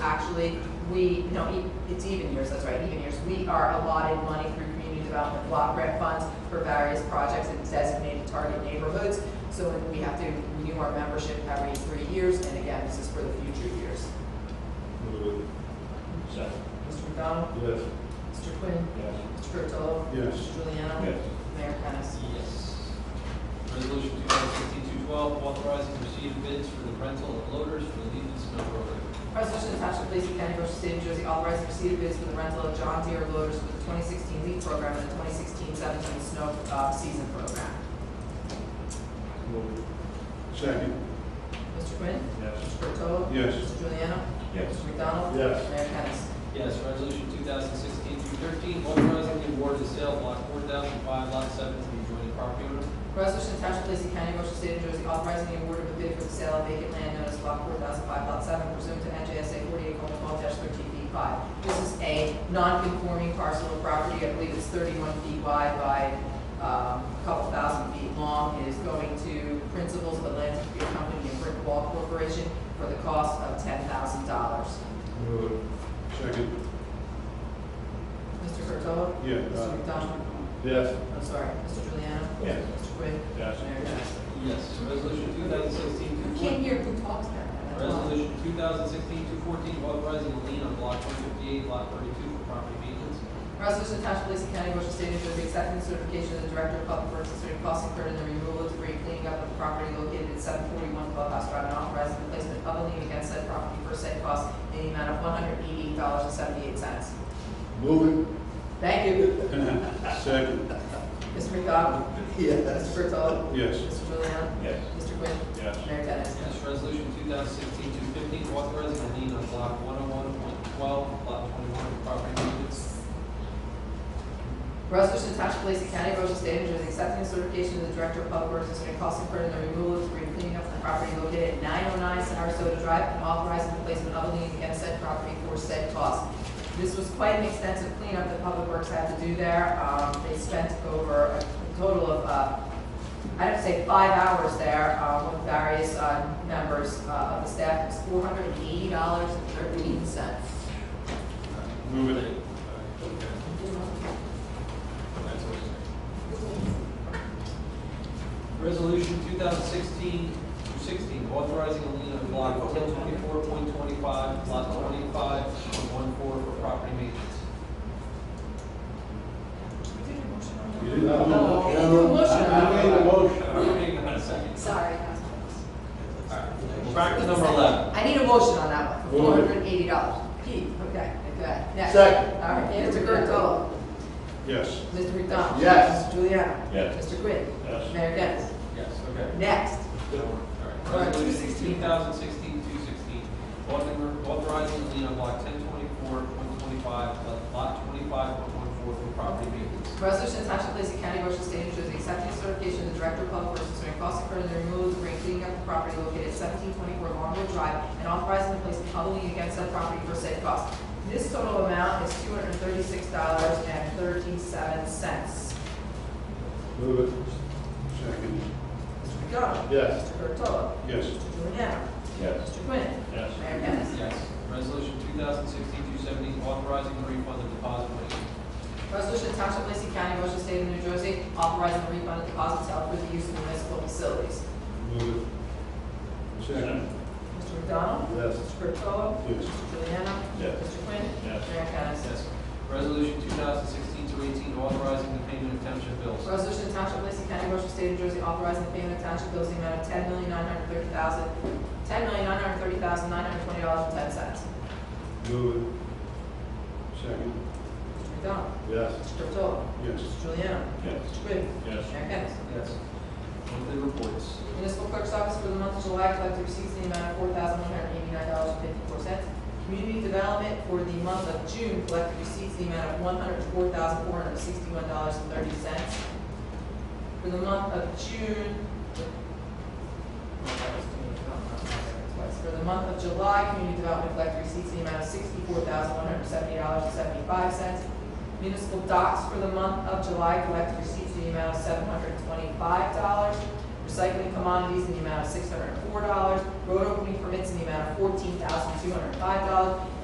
actually, we, no, e- it's even years, that's right, even years. We are allotted money through community development block grant funds for various projects in designated target neighborhoods. So we have to renew our membership every three years, and again, this is for the future years. Move Second. Mr. McDonald? it. Yes. Mr. Quinn? Yes. Mr. Curatolo? Yes. Mr. Juliano? Yes. Mayor Kennas? Yes. Resolution 2016-212, authorizing receipt of bids for the rental of loaders for the Leland Snow Program. Resolution to Township of Lacey County, Ocean State, New Jersey, authorizing receipt of bids for the rental of John Deere loaders for the 2016 leaf program and the 2016-17 snow uh, season program. Move it. Second. Mr. Quinn? Yes. Mr. Curatolo? Yes. Mr. Juliano? Yes. Mr. McDonald? Yes. Mayor Kennas? Yes, resolution 2016-213, authorizing the award of sale of block 4005, lot 7 to the joint property owner. Resolution to Township of Lacey County, Ocean State, New Jersey, authorizing the award of a bid for the sale of vacant land known as block four thousand five, lot seven pursuant to NJSA forty-eight thirteen feet five. This is a non-conforming parcel of property, I believe it's thirty-one feet wide by, um, a couple thousand feet long. It is going to Principles of Atlantic Beer Company and Brick Wall Corporation for the cost of ten thousand dollars. Move it. Second. Mr. Curtolo. Yeah. Mr. McDonald? Yes. I'm sorry, Mr. Juliano? Yes. Mr. Quinn? Yes. Mayor Johnson? Yes, resolution 2016-214. You can't hear who talks now. That's why. Resolution 2016-214, authorizing a lien on block 158, lot 32 for property maintenance. Resolution to Township of Lacey County, Ocean State, New Jersey, accepting the certification of the Director of Public Works concerning costs incurred in the removal of debris, cleaning up of the property located at seven forty-one Clubhouse Drive, and authorizing the placement of a lien against said property for said cost in the amount of one hundred eighty-eight dollars and seventy-eight cents. Move Thank you. it. Second. Mr. McDonald? Mr. Curtolo. Yes. Mr. Juliana? Yes. Mr. Quinn? Yes. Mayor Dennis? Yes, resolution 2016-215, authorizing a lien on block 101.12, lot 21 for property maintenance. Resolution to Township of Lacey County, Ocean State, New Jersey, accepting the certification of the Director of Public Works concerning costs incurred in the removal of debris and cleaning up the property located at nine oh nine Sarasota Drive and authorizing the placement of a lien against said property for said cost. This was quite an extensive cleanup that Public Works had to do there. Um, they spent over a total of, uh, I'd have to say five hours there, um, with various, uh, members, uh, of the staff. It was four hundred and eighty dollars and thirteen cents. Move it. Resolution 2016-216, authorizing a lien on block 124.25, lot 25 and 14 for property maintenance. You didn't have a Oh, you didn't do motion. a motion. I made a motion. Hang on a second. Sorry, Councilman. Practice number 11. I need a motion on that one, four Move it. hundred and eighty dollars. Pete, okay, okay, next. Second. All right, Mr. Curatolo, Yes. Mr. McDonald. Yes. Mrs. Juliana. Yes. Mr. Quinn. Yes. Mayor Dennis. Yes, okay. Next, All right, Resolution 216. 2016-216, author- authorizing a lien on block 1024.25, lot- lot 25.14 for property maintenance. resolution to Township of Lacey County, Ocean State, New Jersey, accepting certification of the Director of Public Works concerning costs incurred in the removal of debris, cleaning up the property located at seventeen twenty-four Longwood Drive, and authorizing the place of public lien against said property for said cost. This total amount is two hundred and thirty-six dollars and thirty-seven cents. Move it. Second. Mr. McDonald. Yes. Mr. Curatolo, Yes. Mr. Juliana. Yes. Mr. Quinn. Yes. Mayor Kennas. Yes. Resolution 2016-217, authorizing the refund of deposit money. Resolution to Township of Lacey County, Ocean State of New Jersey, authorizing the refund of deposits held for the use of municipal facilities. Move it. Second. Mr. McDonald? Yes. Mr. Curatolo? Yes. Mr. Juliana? Yes. Mr. Quinn? Yes. Mayor Kennas. Yes. Resolution 2016-218, authorizing the payment of township bills. Resolution to Township of Lacey County, Ocean State of New Jersey, authorizing the payment of township bills in the amount of ten million nine hundred thirty thousand, ten million nine hundred thirty thousand nine hundred twenty dollars and ten cents. Move it. Second. Mr. McDonald? Yes. Mr. Curatolo? Yes. Mr. Juliana? Yes. Mr. Quinn? Yes. Mayor Kennas. Yes. Monthly reports. Municipal Clerk's Office for the month of July collected receipts in the amount of four thousand one hundred eighty-nine dollars and fifty-four cents. Community Development for the month of June collected receipts in the amount of one hundred four thousand four hundred sixty-one dollars and thirty cents. For the month of June, for the month of July, Community Development collected receipts in the amount of sixty-four thousand one hundred seventy dollars and seventy-five cents. Municipal Docks for the month of July collected receipts in the amount of seven hundred twenty-five dollars. Recycling commodities in the amount of six hundred and four dollars. Road opening permits in the amount of fourteen thousand two hundred and five dollars.